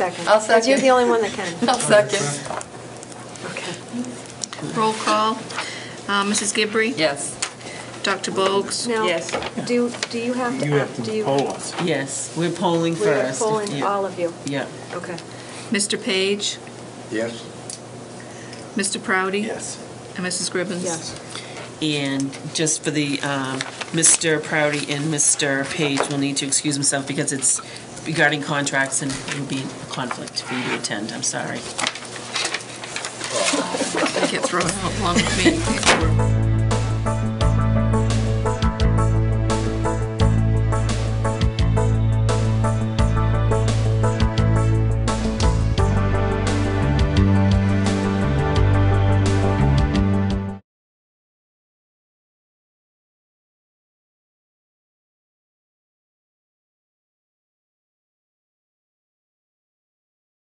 Second. I'll But You're second. the only one that can. I'll second. Okay. Roll call. Uh, Mrs. Gabri? Yes. Dr. Bogues? Now, Yes. do, do you have to? You have do you- to poll us. Yes, we're polling We're first. polling Yeah, all of you. Yeah. Okay. Mr. Page? Yes. Mr. Proudy? Yes. And Mrs. Gribbins? Yes. And just for the, um, Mr. Proudy and Mr. Page will need to excuse himself because it's regarding contracts and it would be a conflict for you to attend. I'm sorry. I get thrown out along with me.